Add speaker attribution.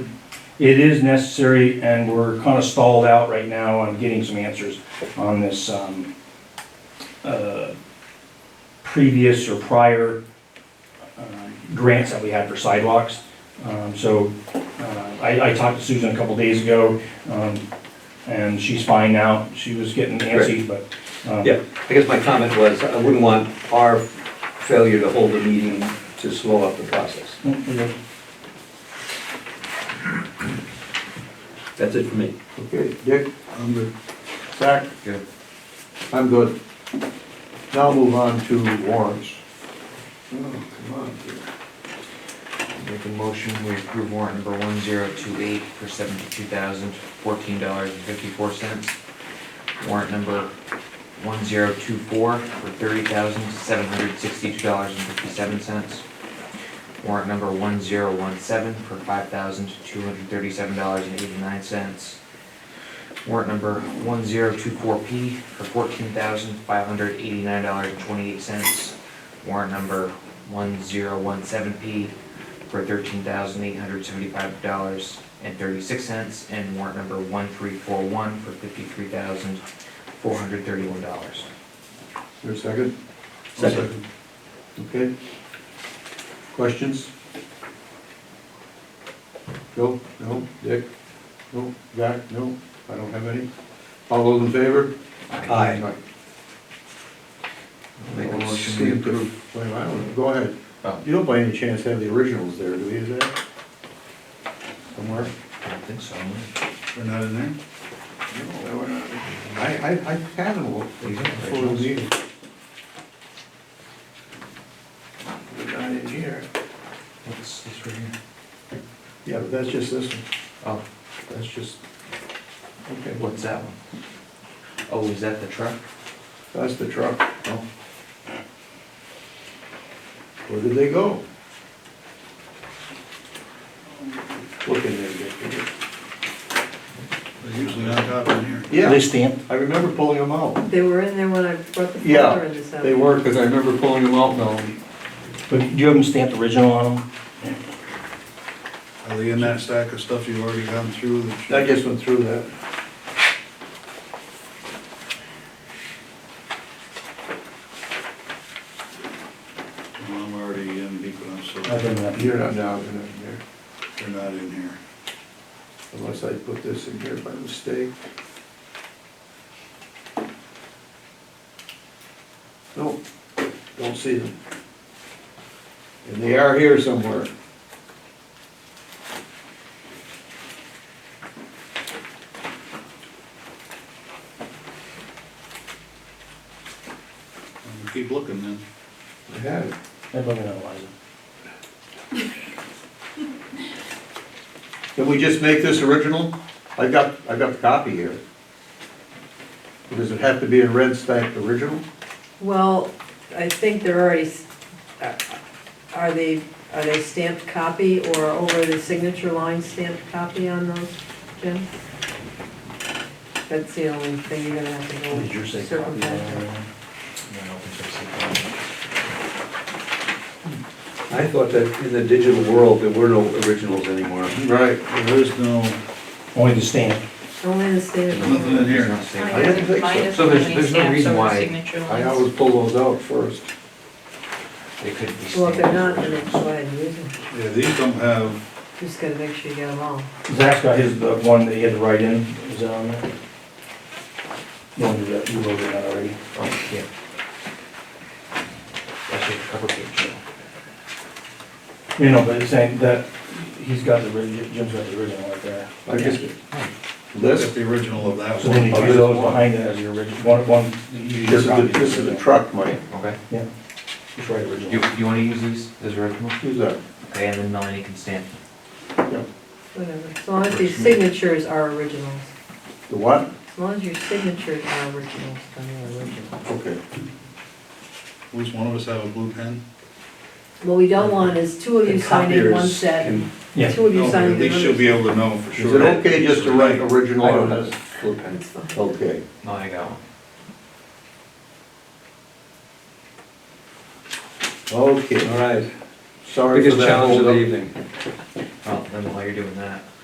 Speaker 1: it is necessary, and we're kind of stalled out right now on getting some answers on this, um, uh, previous or prior, uh, grants that we had for sidewalks. Um, so, uh, I, I talked to Susan a couple days ago, um, and she's fine now. She was getting antsy, but, um,
Speaker 2: Yeah, I guess my comment was, I wouldn't want our failure to hold a meeting to slow up the process.
Speaker 1: mm, we're good.
Speaker 2: That's it for me.
Speaker 3: Okay, Dick? I'm good. Zach?
Speaker 4: Good.
Speaker 3: I'm good. Now move on to warrants. Oh, come on, dude.
Speaker 4: Make a motion, we approve warrant number one zero two eight for seventy-two thousand fourteen dollars and fifty-four cents. Warrant number one zero two four for thirty thousand seven hundred sixty-two dollars and fifty-seven cents. Warrant number one zero one seven for five thousand two hundred thirty-seven dollars and eighty-nine cents. Warrant number one zero two four P for fourteen thousand five hundred eighty-nine dollars and twenty-eight cents. Warrant number one zero one seven P for thirteen thousand eight hundred seventy-five dollars and thirty-six cents, and warrant number one three four one for fifty-three thousand four hundred thirty-one dollars.
Speaker 3: Is there a second?
Speaker 2: Second.
Speaker 3: Okay. Questions? Joe? No? Dick? No? Zach? No? I don't have any. All those in favor?
Speaker 2: Aye.
Speaker 4: Make a
Speaker 3: Let's
Speaker 4: motion,
Speaker 3: see
Speaker 4: we
Speaker 3: if the-
Speaker 4: approve.
Speaker 3: Wait, I don't know. Go ahead.
Speaker 4: Oh.
Speaker 3: You don't by any chance have the originals there, do you, is that? Somewhere?
Speaker 4: I don't think so.
Speaker 3: They're not in there? No, they were not. I, I, I had them all
Speaker 4: These are
Speaker 3: before the
Speaker 4: originals.
Speaker 3: meeting. They're not in here.
Speaker 4: What's this right here?
Speaker 3: Yeah, but that's just this one,
Speaker 4: Oh,
Speaker 3: that's just, okay, well,
Speaker 4: what's that one? Oh, is that the truck?
Speaker 3: that's the truck.
Speaker 4: Oh.
Speaker 3: Where did they go? Look in there, Dick.
Speaker 5: They're usually on top in here.
Speaker 1: They
Speaker 3: Yeah,
Speaker 1: stamped?
Speaker 3: I remember pulling them out.
Speaker 6: They were in there when I brought the
Speaker 3: Yeah,
Speaker 6: folder in this
Speaker 3: They
Speaker 6: afternoon.
Speaker 3: were, because I remember pulling them out, Mel.
Speaker 1: But do you have them stamped original on them?
Speaker 5: Are they in that stack of stuff you've already gone through? that you-
Speaker 3: I just went through that.
Speaker 5: Well, I'm already in deep enough, so
Speaker 3: I've
Speaker 5: they're
Speaker 3: been up here, I'm down in there,
Speaker 5: not in here.
Speaker 3: unless I put this in here by mistake. No, don't see them. And they are here somewhere.
Speaker 5: I'm gonna Keep looking then.
Speaker 3: I had it.
Speaker 1: They're looking at Eliza.
Speaker 3: Can we just make this original? I got, I got the copy here. Does it have to be in red stamped original?
Speaker 6: Well, I think they're already, s- uh, are they, are they stamped copy or over the signature line stamped copy on those, Jim? That's the only thing you're gonna have to go.
Speaker 1: Did yours say copy?
Speaker 6: circumvent.
Speaker 4: No, I don't think so.
Speaker 2: I thought that in the digital world, there were no originals anymore.
Speaker 3: Right.
Speaker 5: There is no,
Speaker 1: Only the stamp.
Speaker 6: Only the stamped.
Speaker 5: nothing in
Speaker 4: There's
Speaker 5: here.
Speaker 4: not
Speaker 6: Oh,
Speaker 4: stamped.
Speaker 3: I didn't think so.
Speaker 4: So there's- there's no reason why-
Speaker 3: I always pull those out first.
Speaker 4: They could be stamped.
Speaker 6: Well, if they're not, then
Speaker 4: original.
Speaker 6: it's why I use them.
Speaker 5: Yeah, these don't have,
Speaker 6: Just gotta make sure you get them all.
Speaker 1: Zach's got his, the one that he had to write in, is that on there? No, you wrote it out already.
Speaker 4: Oh, yeah. That's your cover page. yeah.
Speaker 1: You know, but it's saying that, he's got the, orig- Jim's got the original right there.
Speaker 3: I just,
Speaker 4: Hmm.
Speaker 5: look at
Speaker 3: this,
Speaker 5: the original of that
Speaker 1: So then you
Speaker 5: one.
Speaker 1: do those behind it as your original, one, one. you-
Speaker 3: this is, the- this is the truck, Mike.
Speaker 4: Okay.
Speaker 1: Yeah, just write original.
Speaker 4: You, you wanna use these as original?
Speaker 3: Who's that?
Speaker 4: Okay, and then Melanie can stamp.
Speaker 6: Whatever, as long as these signatures are originals.
Speaker 3: The what?
Speaker 6: As long as your signatures are originals, then they're original.
Speaker 3: Okay.
Speaker 5: At least one of us have a blue pen.
Speaker 6: What we don't want is two of you
Speaker 3: And
Speaker 6: signing one
Speaker 3: copiers
Speaker 6: set, and
Speaker 1: Yeah.
Speaker 6: two of you
Speaker 5: No,
Speaker 6: signing
Speaker 5: At
Speaker 6: the
Speaker 5: least she'll be
Speaker 6: other.
Speaker 5: able to know for
Speaker 3: Is
Speaker 5: sure.
Speaker 3: it okay just to write original on this?
Speaker 4: blue pen.
Speaker 6: That's fine.
Speaker 3: Okay.
Speaker 4: No, Oh, I got one.
Speaker 3: Okay.
Speaker 2: right.
Speaker 3: Sorry for
Speaker 2: Biggest
Speaker 3: that
Speaker 2: challenge of the
Speaker 3: holdup.
Speaker 2: evening.
Speaker 4: Oh, then while you're doing that,